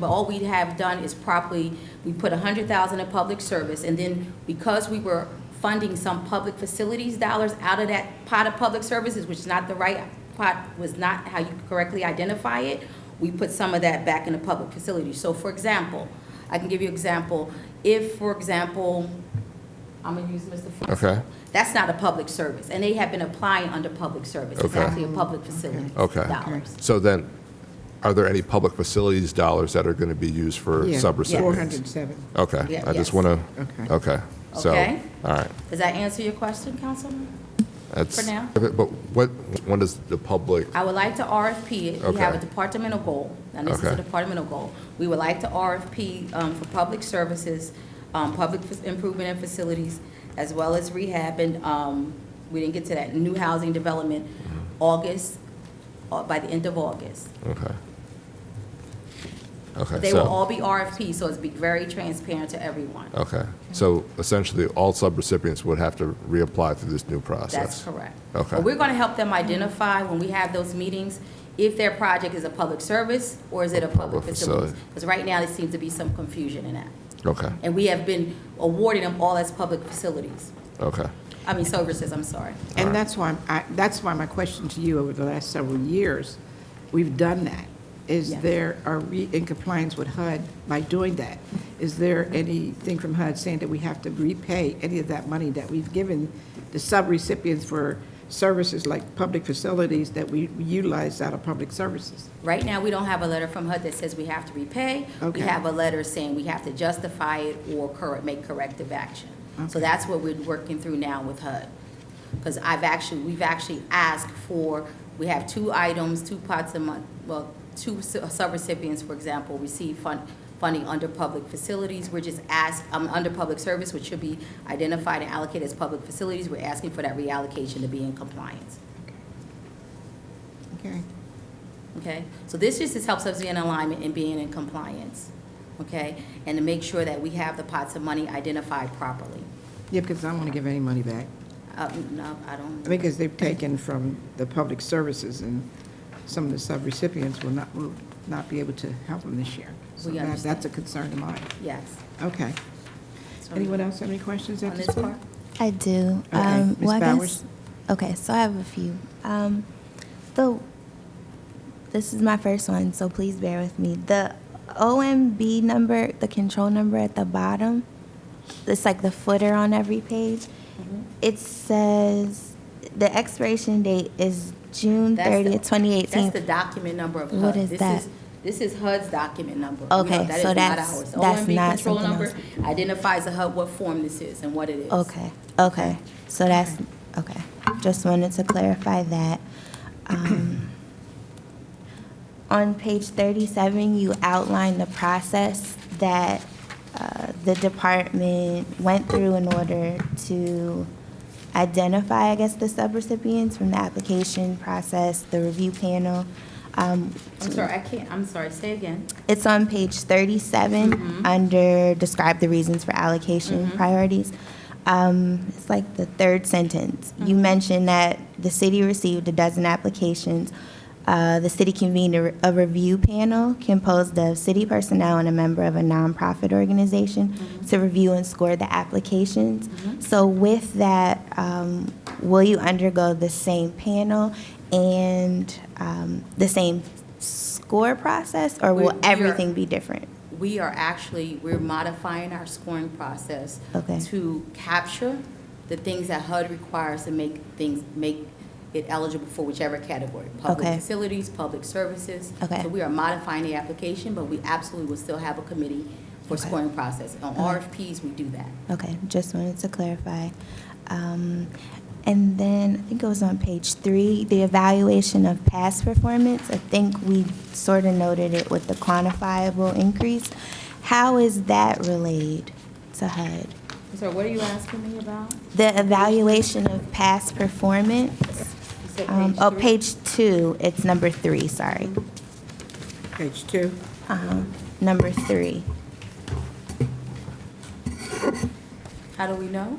but all we have done is properly, we put a hundred thousand in public service, and then because we were funding some public facilities dollars out of that pot of public services, which is not the right pot, was not how you correctly identify it, we put some of that back in the public facilities. So for example, I can give you example, if, for example, I'm gonna use Mr. Flex. Okay. That's not a public service, and they have been applying under public service. It's Okay. actually a public facility. Okay. Dollars. So then, are there any public facilities dollars that are going to be used for Yeah, subrecipients? 407. Okay, Yeah, I yes. just want to, Okay. okay, so, Okay. all right. Does that answer your question, Councilman? That's- For now. But what, when does the public, I would like to RFP it. We have a Okay. departmental goal, and this is a Okay. departmental goal. We would like to RFP um, for public services, um, public f- improvement and facilities, as well as rehab, and um, we didn't get to that, new housing development, Mm-hmm. August, uh, by the end of August. okay. Okay, They will so, all be RFP, so it's be very transparent to everyone. okay. So essentially, all subrecipients would have to reapply through this new That's process? correct. Okay. But we're going to help them identify when we have those meetings, if their project is a public service or is it a public Public facility? facility. Because right now, there seems to be some confusion in that. Okay, And we have been awarding them all as public facilities, okay, I mean services, I'm sorry. And that's why, I, that's why my question to you over the last several years, we've done that. Is Yeah. there, are we in compliance with HUD by doing that? Is there anything from HUD saying that we have to repay any of that money that we've given the subrecipients for services like public facilities that we utilize out of public services? Right now, we don't have a letter from HUD that says we have to repay. We Okay. have a letter saying we have to justify it or cor- make corrective action. So Okay. that's what we're working through now with HUD. Because I've actually, we've actually asked for, we have two items, two pots a month, well, two su- subrecipients, for example, receive fund, funding under public facilities. We're just asked, um, under public service, which should be identified and allocated as public facilities. We're asking for that reallocation to be in compliance. Okay. Okay, so this just is helps us be in alignment and being in compliance, okay? And to make sure that we have the pots of money identified properly. Yeah, because I don't want to give any money back. Uh, no, I I don't, mean, because they've taken from the public services, and some of the subrecipients will not, will not be able to help them this year. So We that- understand. that's a concern of mine. yes. Okay. So, Anyone else have any questions at On this this point? part? I do. Okay, Um, Ms. well, I Bowers? guess, okay, so I have a few. Um, the this is my first one, so please bear with me. The OMB number, the control number at the bottom, it's like the footer on every page. Mm-hmm. It says the expiration date is June That's the- thirtieth, twenty eighteen. That's the document number of HUD. What is This that? This is HUD's document number. We Okay, know that so is not that's- ours. The that's OMB not control something number Identifies the HUD, what form this is and what it is. Okay, okay. So that's, okay. Just wanted to clarify that. Um, On page 37, you outline the process that uh, the department went through in order to identify, I guess, the subrecipients from the application process, the review panel. Um, I'm sorry, I can't, I'm sorry, say again. It's on page 37, under describe the reasons for allocation priorities. Um, It's like the third sentence. You mentioned that the city received a dozen applications. Uh, The city convened a re- a review panel composed of city personnel and a member of a nonprofit organization to review and score the applications. So with that, um, will you undergo the same panel and um, the same score process, We're- or will we are- everything be different? we are actually, we're modifying our scoring process Okay. to capture the things that HUD requires to make things, make it eligible for whichever category. Public Okay. facilities, public services. Okay. So we are modifying the application, but we absolutely will still have a committee for Okay. scoring process. On RFPs, we do that. Okay, just wanted to clarify. Um, And then, I think it was on page three, the evaluation of past performance. I think we sort of noted it with the quantifiable increase. How is that relayed to HUD? So what are you asking me about? The evaluation of past performance? You said um, page Oh, three? page two, it's number three, sorry. Page two. Uh-huh, Mm-hmm. Number three. How do we know?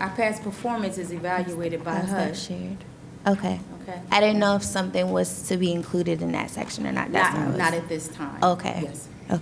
Our past performance is evaluated by Uh-huh, HUD. Shared. Okay. Okay. I didn't know if something was to be included in that section or not. Not, That's what I not was- at this time. Okay. Yes.